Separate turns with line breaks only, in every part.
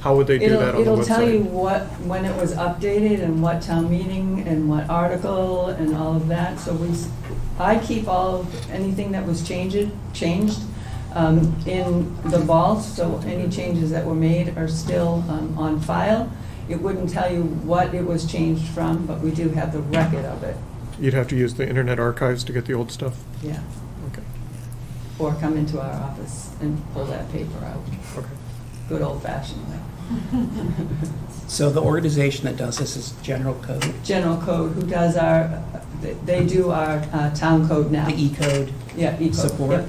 How would they do that
It'll,
on the
it'll
website?
tell you what, when it was updated and what town meeting and what article and all of that. So we, s- I keep all, of anything that was changed, changed um, in the vault. So any changes that were made are still um, on file. It wouldn't tell you what it was changed from, but we do have the record of it,
You'd have to use the internet archives to get the old stuff?
yeah.
Okay,
Or come into our office and pull that paper out,
okay.
good old fashioned way.
So the organization that does this is General Code,
General Code, who does our, they do our uh, town code now.
the E E-code
Yeah, each
support.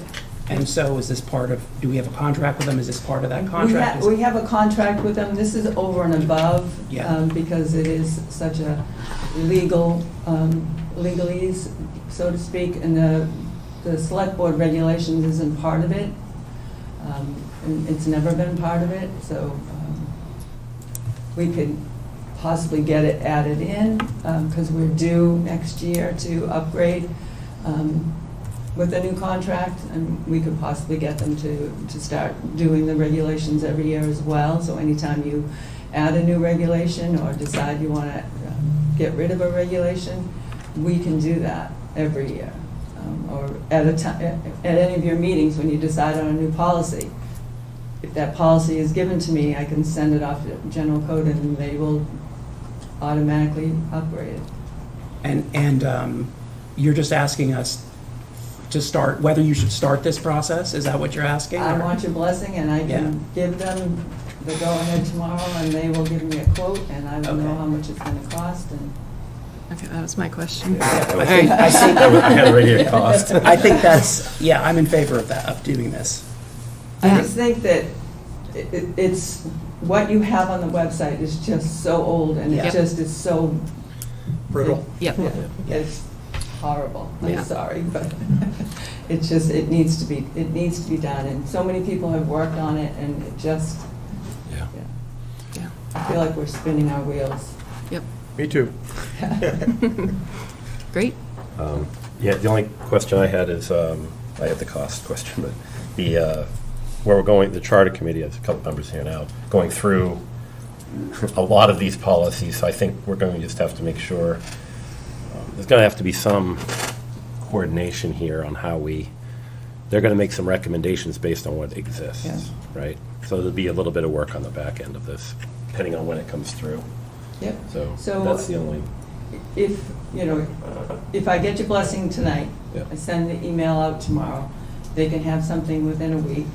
And so is this part of, do we have a contract with them? Is this part of that contract? Is-
We have a contract with them, this is over and above.
Yeah.
um, Because it is such a legal, um, legalese, so to speak, and the, the select board regulations isn't part of it. Um, And it's never been part of it, so um, we could possibly get it added in, because we're due next year to upgrade um, with a new contract, and we could possibly get them to, to start doing the regulations every year as well. So anytime you add a new regulation or decide you want to get rid of a regulation, we can do that every year. Um, Or at a time, at any of your meetings, when you decide on a new policy, if that policy is given to me, I can send it off to general code and they will automatically upgrade it.
And, and um, you're just asking us to start, whether you should start this process? Is that what you're asking?
I
or-
want your blessing, and I
Yeah.
can give them the go-ahead tomorrow, and they will give me a quote, and I will know
Okay.
how much it's gonna cost, and
Okay, that was my question.
I think, I think-
I had it right here, cost.
I think that's, yeah, I'm in favor of that, of doing this.
I
Yeah.
just think that it- it- it's, what you have on the website is just so old, and it
Yeah.
just is so.
Brittle.
Yep.
Yeah, It's horrible,
Yeah.
I'm sorry, but it's just, it needs to be, it needs to be done, and so many people have worked on it, and it just,
Yeah.
yeah,
Yeah.
I feel like we're spinning our wheels.
Yep.
Me too.
Great.
Um, Yeah, the only question I had is, um, I had the cost question, but the, uh, where we're going, the charter committee, there's a couple members here now, going through a lot of these policies, so I think we're going to just have to make sure, um, there's going to have to be some coordination here on how we, they're going to make some recommendations based on what
Yeah.
exists, right? So there'll be a little bit of work on the back end of this, depending on when it comes through,
Yep.
so
So-
that's the only,
if, you know, if I get your blessing tonight,
Yeah.
I send the email out tomorrow, they can have something within a week.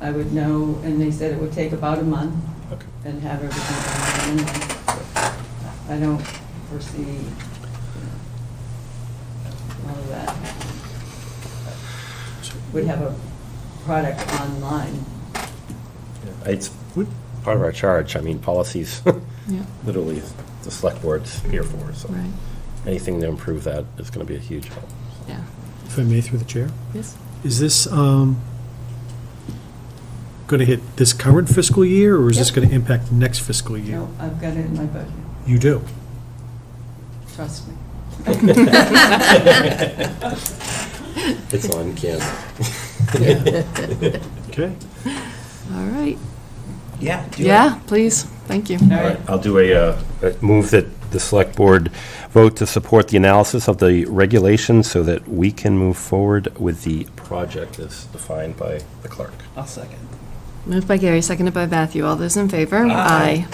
I would know, and they said it would take about a month
okay.
and have everything. done in a month. I don't foresee you know, all of that. Would have a product online.
It's part of our charge, I mean, policies,
Yeah,
literally, the select board's here for, so
right,
anything to improve that is going to be a huge help.
yeah.
If I may, through the chair,
Yes,
is this um, going to hit this current fiscal year, or is this
Yep.
going to impact next fiscal
You
year?
know, I've got it in my budget,
You do.
trust me.
It's on Canva.
Okay.
all right.
Yeah. do it.
Yeah, please, thank you.
All
All
right,
right, I'll do a, uh, a move that the select board vote to support the analysis of the regulations so that we can move forward with the project as defined by the clerk.
I'll second.
Moved by Gary, seconded by Matthew. All those in favor? Aye.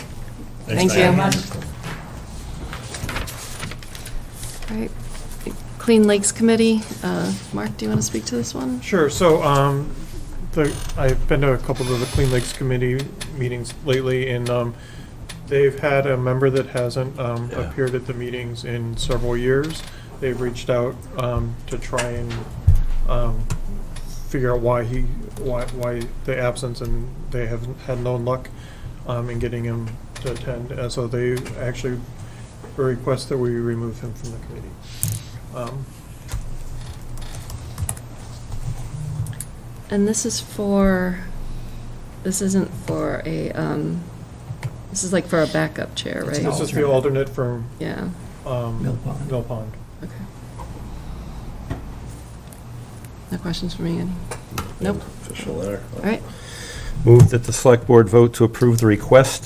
Thank you.
very much.
All right. Clean Lakes Committee, uh, Mark, do you want to speak to this one?
Sure, so, um, the, I've been to a couple of the Clean Lakes Committee meetings lately, and, um, they've had a member that hasn't, um,
Yeah.
appeared at the meetings in several years. They've reached out, um, to try and, um, figure out why he, why, why the absence, and they have had no luck, um, in getting him to attend, and so they actually request that we remove him from the committee. Um,
And this is for, this isn't for a, um, this is like for a backup chair,
It's
right?
This is the alternate from
Yeah,
um,
Mill Pond.
Mill Pond.
okay. No questions for me, any? Nope.
Official letter.
All right,
Move that the select board vote to approve the request